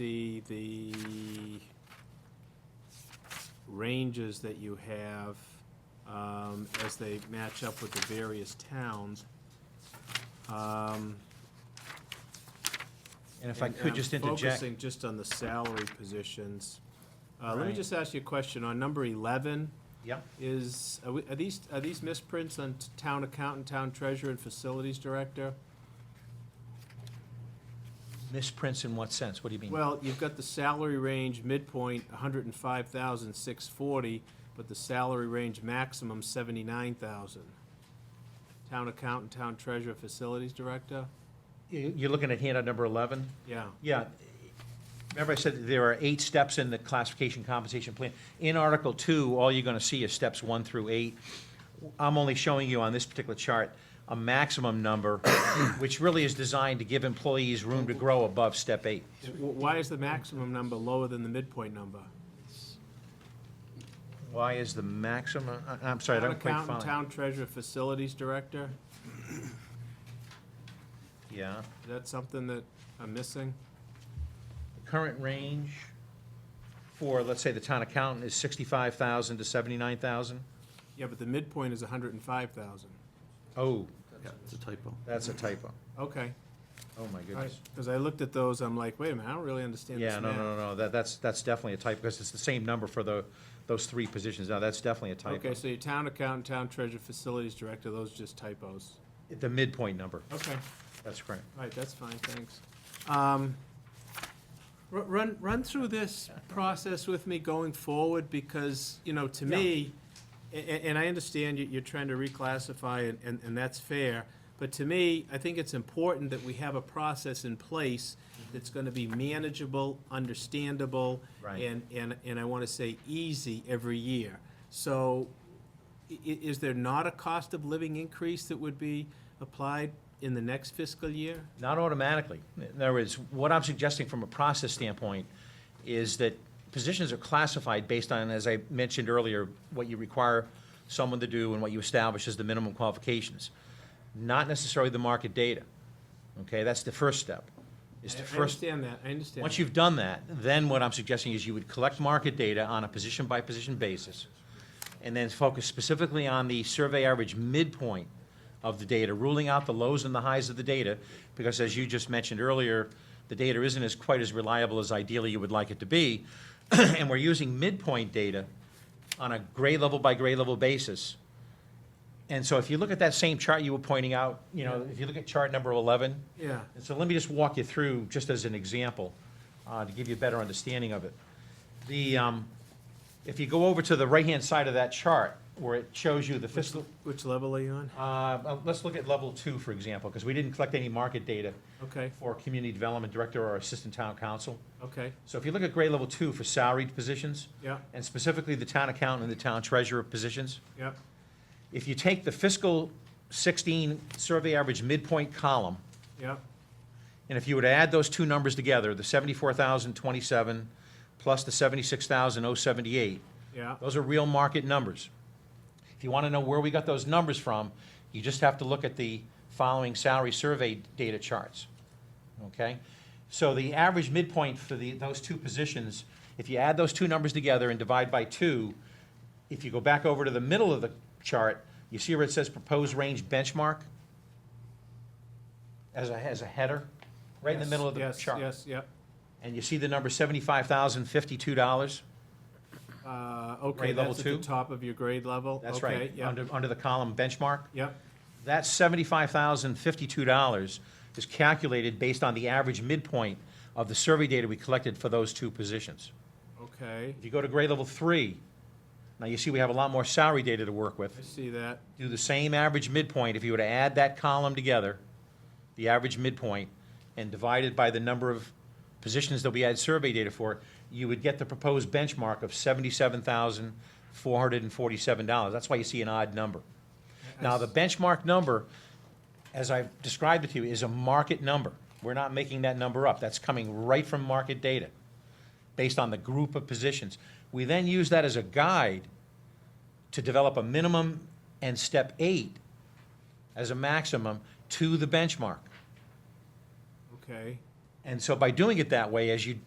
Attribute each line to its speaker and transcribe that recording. Speaker 1: see the ranges that you have um, as they match up with the various towns. Um,
Speaker 2: And if I
Speaker 1: and- and
Speaker 2: could
Speaker 1: I'm
Speaker 2: just interject,
Speaker 1: Focusing just on the salary positions. Uh, Let me
Speaker 2: Right.
Speaker 1: just ask you a question. On number 11,
Speaker 2: yep,
Speaker 1: is, are we- are these, are these misprints on t- town accountant, town treasurer, and facilities director?
Speaker 2: misprints in what sense? What do you mean?
Speaker 1: Well, you've got the salary range midpoint, hundred and five thousand, six forty, but the salary range maximum, seventy-nine thousand. Town accountant, town treasurer, facilities director?
Speaker 2: You- You're looking at handout number 11?
Speaker 1: Yeah,
Speaker 2: Yeah. Remember I said that there are eight steps in the classification compensation plan. In Article 2, all you're going to see is steps 1 through 8. I'm only showing you on this particular chart a maximum number, which really is designed to give employees room to grow above step 8.
Speaker 1: W- why is the maximum number lower than the midpoint number?
Speaker 2: Why is the maximum, I- I'm sorry, I
Speaker 1: Town
Speaker 2: don't quite
Speaker 1: accountant,
Speaker 2: follow.
Speaker 1: town treasurer, facilities director,
Speaker 2: Yeah.
Speaker 1: is that something that I'm missing?
Speaker 2: current range for, let's say, the town accountant is sixty-five thousand to seventy-nine thousand?
Speaker 1: Yeah, but the midpoint is hundred and five thousand.
Speaker 2: Oh,
Speaker 3: Yeah, it's a typo.
Speaker 2: that's a typo.
Speaker 1: Okay,
Speaker 2: Oh, my goodness.
Speaker 1: because I looked at those, I'm like, wait a minute, I don't really understand this
Speaker 2: Yeah, no,
Speaker 1: math.
Speaker 2: no, no, no, that, that's, that's definitely a typo, because it's the same number for the, those three positions. Now, that's definitely a typo.
Speaker 1: Okay, so your town accountant, town treasurer, facilities director, those are just typos.
Speaker 2: The midpoint number,
Speaker 1: Okay, all
Speaker 2: that's correct.
Speaker 1: right, that's fine, thanks. Um, ru- Run, run through this process with me going forward, because, you know, to me, a- a- and I understand you- you're trying to reclassify, and- and and that's fair, but to me, I think it's important that we have a process in place
Speaker 2: Mm-hmm.
Speaker 1: that's going to be manageable, understandable,
Speaker 2: Right.
Speaker 1: and, and, and I want to say easy every year. So i- i- is there not a cost of living increase that would be applied in the next fiscal year?
Speaker 2: Not automatically. In other words, what I'm suggesting from a process standpoint is that positions are classified based on, as I mentioned earlier, what you require someone to do and what you establish as the minimum qualifications, not necessarily the market data. Okay, that's the first step. Is
Speaker 1: I-
Speaker 2: to
Speaker 1: I
Speaker 2: first,
Speaker 1: understand that, I understand.
Speaker 2: once you've done that, then what I'm suggesting is you would collect market data on a position-by-position basis, and then focus specifically on the survey average midpoint of the data, ruling out the lows and the highs of the data, because as you just mentioned earlier, the data isn't as quite as reliable as ideally you would like it to be, and we're using midpoint data on a grade level by grade level basis. And so if you look at that same chart you were pointing out, you know, if you look at chart number 11,
Speaker 1: Yeah,
Speaker 2: and so let me just walk you through, just as an example, uh, to give you a better understanding of it. The, um, if you go over to the right-hand side of that chart, where it shows you the fiscal,
Speaker 1: which level are you on?
Speaker 2: uh, uh, let's look at level two, for example, because we didn't collect any market data
Speaker 1: Okay,
Speaker 2: for community development director or assistant town council.
Speaker 1: okay,
Speaker 2: So if you look at grade level two for salaried positions,
Speaker 1: yeah,
Speaker 2: and specifically the town accountant and the town treasurer positions,
Speaker 1: yeah,
Speaker 2: if you take the fiscal 16 survey average midpoint column,
Speaker 1: yeah,
Speaker 2: And if you were to add those two numbers together, the 74,027 plus the 76,078,
Speaker 1: yeah,
Speaker 2: those are real market numbers. If you want to know where we got those numbers from, you just have to look at the following salary survey data charts, okay? So the average midpoint for the, those two positions, if you add those two numbers together and divide by two, if you go back over to the middle of the chart, you see where it says proposed range benchmark? As a, as a header, right in the
Speaker 1: Yes,
Speaker 2: middle of the
Speaker 1: yes,
Speaker 2: chart?
Speaker 1: Yes, yep,
Speaker 2: And you see the number seventy-five thousand fifty-two dollars?
Speaker 1: uh, okay,
Speaker 2: Grade level
Speaker 1: that's at the
Speaker 2: two?
Speaker 1: top of your grade level?
Speaker 2: That's
Speaker 1: Okay,
Speaker 2: right,
Speaker 1: yep,
Speaker 2: under, under the column benchmark.
Speaker 1: Yep,
Speaker 2: That seventy-five thousand fifty-two dollars is calculated based on the average midpoint of the survey data we collected for those two positions.
Speaker 1: okay,
Speaker 2: If you go to grade level three, now you see we have a lot more salary data to work
Speaker 1: I
Speaker 2: with.
Speaker 1: see that,
Speaker 2: Do the same average midpoint, if you were to add that column together, the average midpoint, and divide it by the number of positions that we had survey data for, you would get the proposed benchmark of seventy-seven thousand four hundred and forty-seven dollars. That's why you see an odd number. Now, the benchmark number, as I've described it to you, is a market number. We're not making that number up. That's coming right from market data, based on the group of positions. We then use that as a guide to develop a minimum and step eight as a maximum to the benchmark.
Speaker 1: okay,
Speaker 2: And so by doing it that way, as you